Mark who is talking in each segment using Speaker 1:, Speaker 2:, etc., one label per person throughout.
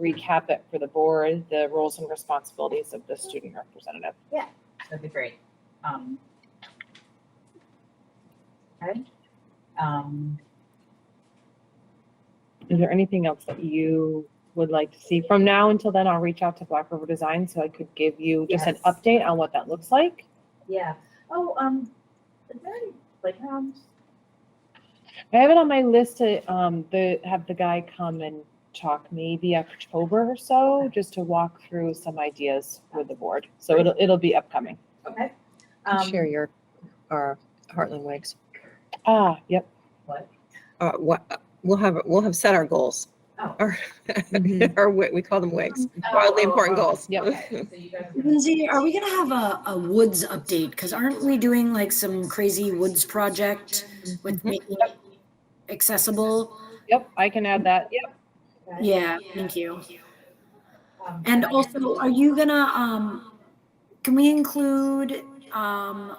Speaker 1: recap it for the board, the roles and responsibilities of the student representative.
Speaker 2: That'd be great. Um. Okay. Um,
Speaker 1: Is there anything else that you would like to see? From now until then, I'll reach out to Black River Design so I could give you just an
Speaker 2: Yes.
Speaker 1: update on what that looks like.
Speaker 2: yeah. Oh, um, is there any playground?
Speaker 1: I have it on my list to, um, the, have the guy come and talk maybe October or so, just to walk through some ideas with the board. So it'll, it'll be upcoming.
Speaker 2: Okay.
Speaker 3: I'll
Speaker 2: Um,
Speaker 3: Share your, uh, Heartland Wakes.
Speaker 1: Ah, yep.
Speaker 2: What?
Speaker 3: Uh, what, we'll have, we'll have set our goals,
Speaker 2: Oh.
Speaker 3: our, our, wa- we call them wakes,
Speaker 2: Oh,
Speaker 3: wildly
Speaker 2: oh,
Speaker 3: important
Speaker 2: oh,
Speaker 3: goals.
Speaker 1: Yep.
Speaker 2: okay. So you guys are gonna-
Speaker 4: Lindsay, are we gonna have a, a woods update? Because aren't we doing like some crazy woods project with
Speaker 3: Mhm.
Speaker 4: making it accessible?
Speaker 1: Yep, I can add that. Yep.
Speaker 2: okay.
Speaker 4: Yeah, thank you.
Speaker 2: Um,
Speaker 4: And also, are you gonna, um, can we include, um,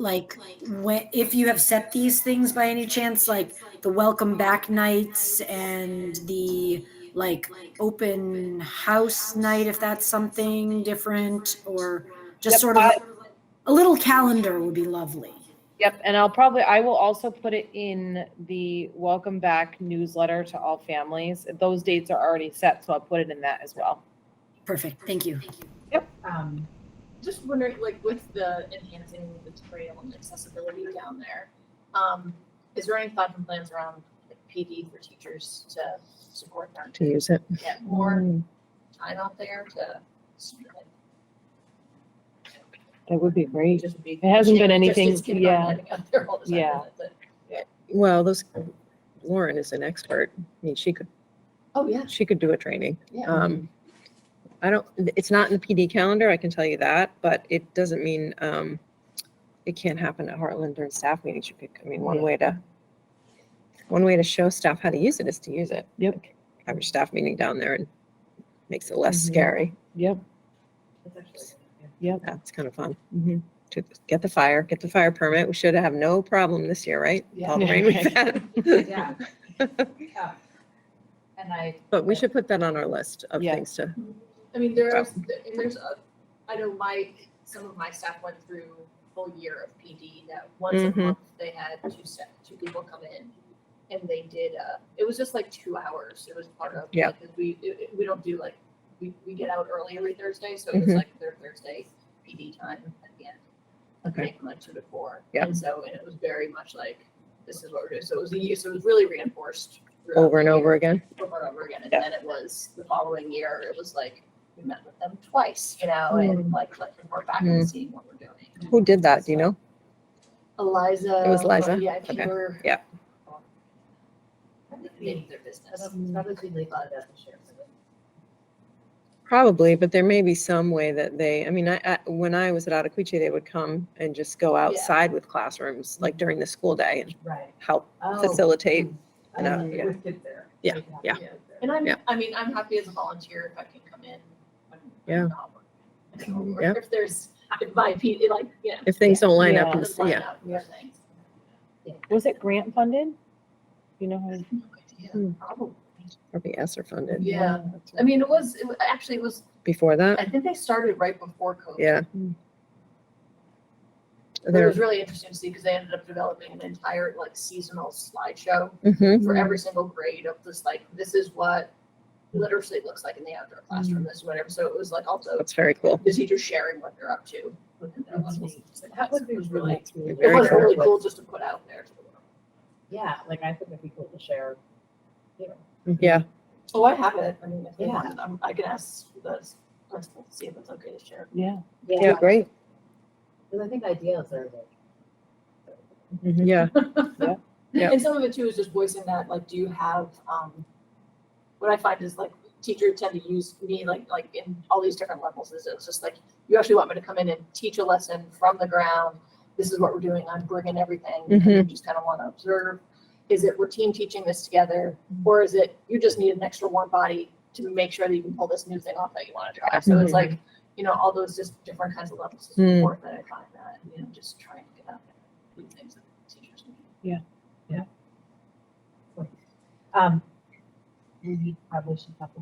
Speaker 4: like, when, if you have set these things by any chance, like the welcome back nights and the, like, open house night, if that's something different, or just
Speaker 1: Yep,
Speaker 4: sort of,
Speaker 1: I-
Speaker 4: a little calendar would be lovely.
Speaker 1: Yep, and I'll probably, I will also put it in the welcome back newsletter to all families. Those dates are already set, so I'll put it in that as well.
Speaker 4: Perfect, thank you.
Speaker 2: Um,
Speaker 5: Just wondering, like with the enhancing the trail and accessibility down there, um, is there any thought and plans around like, PD for teachers to support them
Speaker 3: To use it.
Speaker 5: to get more time out there to?
Speaker 1: That would be great.
Speaker 5: Just be-
Speaker 1: It hasn't been
Speaker 5: just
Speaker 1: anything-
Speaker 5: keep on
Speaker 1: yeah.
Speaker 5: getting out there all the time,
Speaker 1: Yeah.
Speaker 5: but-
Speaker 3: Well, those, Lauren is an expert. I mean, she could,
Speaker 5: Oh, yeah,
Speaker 3: she could do a training.
Speaker 5: yeah.
Speaker 3: Um, I don't, it's not in the PD calendar, I can tell you that, but it doesn't mean, um, it can't happen at Heartland during staff meetings. You could, I mean, one way to, one way to show staff how to use it is to use it.
Speaker 1: Yep.
Speaker 3: Have your staff meeting down there and makes it less
Speaker 1: Mhm.
Speaker 3: scary.
Speaker 1: Yep.
Speaker 2: that's actually-
Speaker 3: That's kind of fun. To get the fire, get the fire permit. We should have no problem this year, right? With All the rain we've had.
Speaker 2: Yeah. Yeah. And I,
Speaker 3: But we should put that on our list of
Speaker 1: Yeah.
Speaker 3: things to,
Speaker 5: I mean, there are, and there's, a- I know my, some of my staff went through a full year of PD that once a
Speaker 3: Mhm.
Speaker 5: month, they had two staff, two people come in. And they did, uh, it was just like two hours. It was part of,
Speaker 3: Yeah.
Speaker 5: because we, it- it- we don't do like, we, we get out early every Thursday, so it was
Speaker 3: Mhm.
Speaker 5: like their Thursday PD time at the end. Of
Speaker 3: Okay.
Speaker 5: night from like two to four.
Speaker 3: Yeah.
Speaker 5: And so, and it was very much like, this is what we're doing. So it was a year, so it was really reinforced. throughout
Speaker 3: over and
Speaker 5: the year
Speaker 3: over again.
Speaker 5: over and over again. And
Speaker 3: Yeah.
Speaker 5: then it was the following year, it was like we met with them twice, you
Speaker 3: Oh.
Speaker 5: know, and like let them work back
Speaker 3: Mm-hmm.
Speaker 5: and seeing what we're doing.
Speaker 3: Who did that, do you know?
Speaker 5: Eliza.
Speaker 3: It was Liza?
Speaker 5: Yeah, if you
Speaker 3: Okay.
Speaker 5: were
Speaker 3: Yeah.
Speaker 2: I think we-
Speaker 5: in their business.
Speaker 2: that's probably we thought about the share.
Speaker 3: Probably, but there may be some way that they, I mean, I, I- when I was at Otacuichi, they would come and just go outside with classrooms, like during the school day and
Speaker 2: Right.
Speaker 3: help
Speaker 2: Oh,
Speaker 3: facilitate.
Speaker 2: oh,
Speaker 3: know,
Speaker 2: it
Speaker 3: yeah.
Speaker 2: would fit there.
Speaker 3: Yeah,
Speaker 2: It would
Speaker 3: yeah.
Speaker 2: fit there.
Speaker 5: And I'm,
Speaker 3: Yeah.
Speaker 5: I mean, I'm happy as a volunteer if I can come in. when I'm
Speaker 3: Yeah.
Speaker 5: not working. Or
Speaker 3: Yeah.
Speaker 5: If there's, if my, P- like, you know.
Speaker 3: If things don't line up,
Speaker 1: Yeah.
Speaker 3: and
Speaker 5: just line
Speaker 3: yeah,
Speaker 5: up for things.
Speaker 1: Was it grant funded? You know, how-
Speaker 5: Yeah,
Speaker 3: Hmm.
Speaker 5: probably.
Speaker 3: or be ESSER funded.
Speaker 5: Yeah, I mean, it was, it wa- actually, it was,
Speaker 3: Before
Speaker 5: I
Speaker 3: that,
Speaker 5: think they started right before COVID.
Speaker 3: yeah.
Speaker 1: Mm.
Speaker 5: But It
Speaker 3: There,
Speaker 5: was really interesting to see because they ended up developing an entire like seasonal slideshow
Speaker 3: mhm,
Speaker 5: for every single grade of this like this is what literacy looks like in the outdoor
Speaker 3: Mm-hmm.
Speaker 5: classroom, this whatever. So it was like also
Speaker 3: that's very cool.
Speaker 5: the teachers sharing what they're up to within their levels. So that was, was really it
Speaker 3: Very
Speaker 5: was
Speaker 3: cool.
Speaker 5: really cool just to put out there to the world.
Speaker 2: Yeah, like I think it'd be cool to share. you know,
Speaker 3: Yeah,
Speaker 5: Oh, I have it. I mean, if they
Speaker 2: Yeah.
Speaker 5: want, I'm, I can ask the principal to see if it's okay to share.
Speaker 1: yeah.
Speaker 3: yeah, great.
Speaker 2: Because I think ideas are like.
Speaker 3: Mm-hmm. Yeah, Yeah.
Speaker 5: And some of it too is just voicing that, like, do you have, um, what I find is like teachers tend to use me like, like in all these different levels is it's just like, you actually want me to come in and teach a lesson from the ground. This is what we're doing. I'm bringing everything. and you just kind of want to observe. Is it we're team teaching this together? Or is it you just need an extra warm body to make sure that you can pull this new thing off that you want to try? So it's like, you know, all those just different kinds of levels of
Speaker 3: Hmm.
Speaker 5: support that I find that, you know, just trying to get out there. do things that teachers need.
Speaker 2: Um, we probably should have